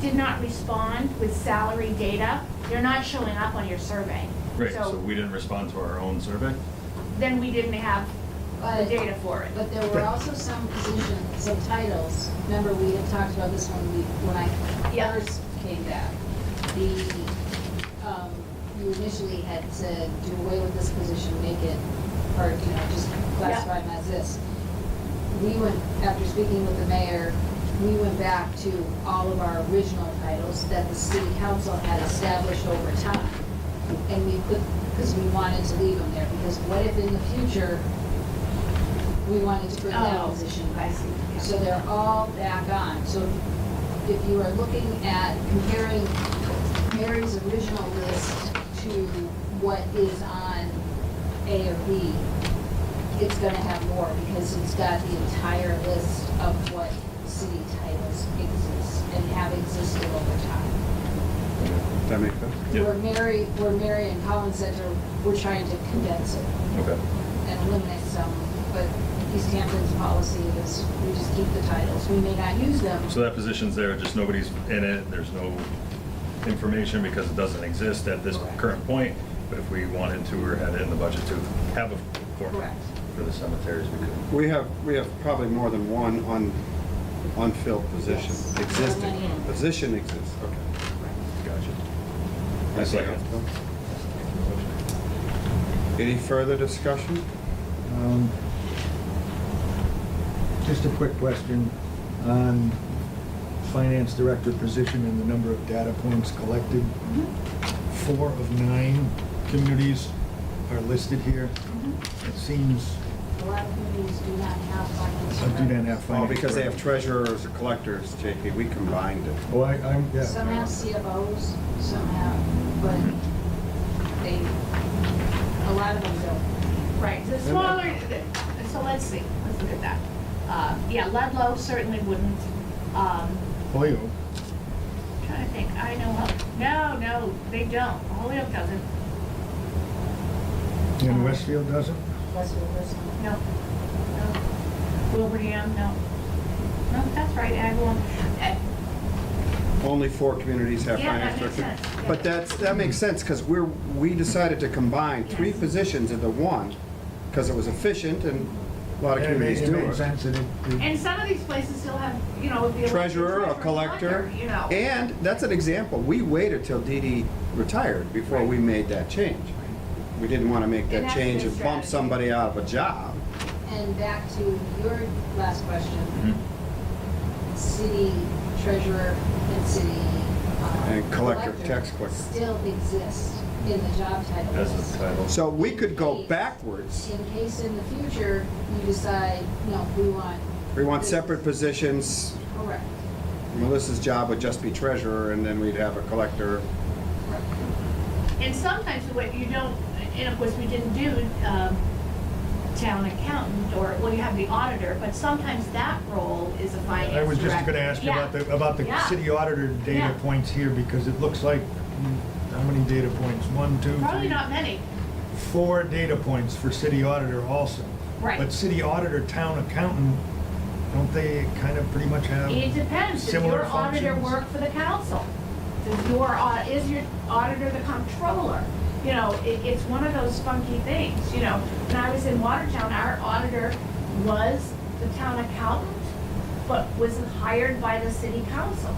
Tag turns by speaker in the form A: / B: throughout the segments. A: did not respond with salary data, they're not showing up on your survey.
B: Right, so
A: So
B: we didn't respond to our own survey?
A: then we didn't have the
C: But-
A: data for it.
C: But there were also some positions, some titles, remember we had talked about this when we, when
A: Yeah.
C: I first came back. The, um, you initially had to do away with this position, make it, or, you know, just classify them as this. We went, after speaking with the mayor, we went back to all of our original titles that the city council had established over time. And we put, because we wanted to leave them there, because what if in the future, we wanted to bring that
A: Oh,
C: position
A: I
C: back.
A: see, yeah.
C: So they're all back on. So if you are looking at comparing Mary's original list to what is on A or B, it's gonna have more because it's got the entire list of what city titles exist and have existed over time.
D: That make sense?
B: Yeah.
C: Where Mary, where Mary and Collins Center, we're trying to condense it
B: Okay.
C: and eliminate some, but East Hampton's policy is we just keep the titles. We may not use them.
B: So that position's there, just nobody's in it, there's no information because it doesn't exist at this
C: Correct.
B: current point. But if we wanted to or had it in the budget to have a format
C: Correct.
B: for the cemeteries, we could.
D: We have, we have probably more than one un- unfilled position
C: Yes.
D: existing.
C: Many.
D: Position exists, okay.
B: Gotcha. I
D: That's
B: second.
D: Any further discussion?
E: Um, Just a quick question on finance director position and the number of data points collected.
C: Mm-hmm.
E: Four of nine communities are listed here.
C: Mm-hmm.
E: It seems,
C: A lot of communities do not have finance.
E: I do not have
D: Oh,
E: finance.
D: because they have treasurers, collectors, JP, we combined it.
E: Oh, I, I'm, yeah.
C: Some have CFOs, some have, but they, a lot of them don't.
A: Right, the smaller, so let's see, let's look at that. Uh, Yeah, Ludlow certainly wouldn't. Um,
E: Hoyo,
A: Trying to think, I know, Hol- no, no, they don't, Holyoke doesn't,
E: and Westfield doesn't?
C: Westfield doesn't.
A: no, no. Wilbraham, no. No, that's right, Agawam. Eh,
D: Only four communities have
A: Yeah,
D: finance
A: that makes
D: director.
A: sense, yeah.
D: But that's, that makes sense, because we're, we decided to combine three
A: Yes.
D: positions into one, because it was efficient and a lot of
E: It made-
D: communities do
E: It made
D: it.
E: sense that it- it-
A: And some of these places still have, you know, the.
D: Treasurer, a collector,
A: You know.
D: and that's an example, we waited till Dee Dee retired before we made that change. We didn't want to make
A: And
D: that
A: that's
D: change
A: the
D: and bump
A: strategy.
D: somebody out of a job.
C: And back to your last question,
B: Mhm.
C: city treasurer and city. uh,
D: And collector, tax collector.
C: Still exist in the job title.
B: As
C: list.
B: a title.
D: So we could go backwards.
C: in case in the future you decide, no, we want.
D: We want separate positions,
C: Correct,
D: Melissa's job would just be treasurer, and then we'd have a collector.
C: correct.
A: And sometimes what you don't, and of course, we didn't do um, town accountant, or, well, you have the auditor, but sometimes that role is a finance
E: I was just
A: director.
E: gonna ask you about
A: Yeah.
E: the, about the
A: Yeah.
E: city auditor
A: Yeah.
E: data points here, because it looks like, mm, how many data points? One, two, three?
A: Probably not many,
E: four data points for city auditor also.
A: Right.
E: But city auditor, town accountant, don't they kind of pretty much have?
A: it depends, does
E: Similar
A: your auditor
E: functions.
A: work for the council? Does your, au- is your auditor the comptroller? You know, it, it's one of those funky things, you know, when I was in Watertown, our auditor was the town accountant, but was hired by the city council,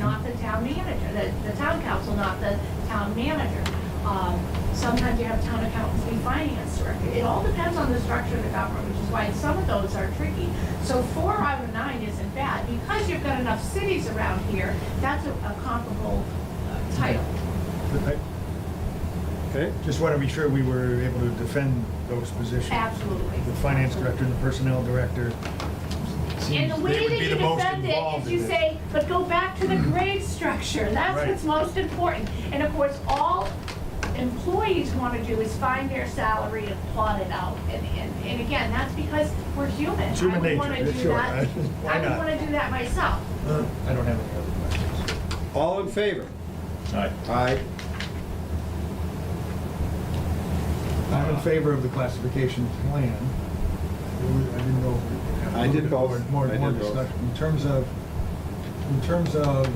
A: not the town manager, the, the town council, not the town manager. Um, Sometimes you have town accountants be finance director. It all depends on the structure of the government, which is why some of those are tricky. So four out of nine isn't bad. Because you've got enough cities around here, that's a a comparable uh, title.
E: I
D: Okay?
E: Just want to be sure we were able to defend those positions.
A: Absolutely.
E: The finance director and the personnel director.
A: And the
E: seems
A: way
E: they would
A: that
E: be
A: you
E: the most
A: defend it is
E: involved in
A: you
E: this.
A: say, but go back to the grade structure, that's
E: Right.
A: what's most important. And of course, all employees wanna do is find their salary and plot it out. And, and, and again, that's because we're human.
E: It's human
A: I would
E: nature,
A: wanna do
E: it's sure.
A: that-
E: Why
A: I would
E: not?
A: wanna do that myself.
E: Uh, I don't have any other questions.
D: All in favor?
B: Aye.
D: Aye.
E: I'm in favor of the classification plan. I didn't know.
D: I did both.
E: More,
D: I
E: more
D: did both.
E: discussion. In terms of, in terms of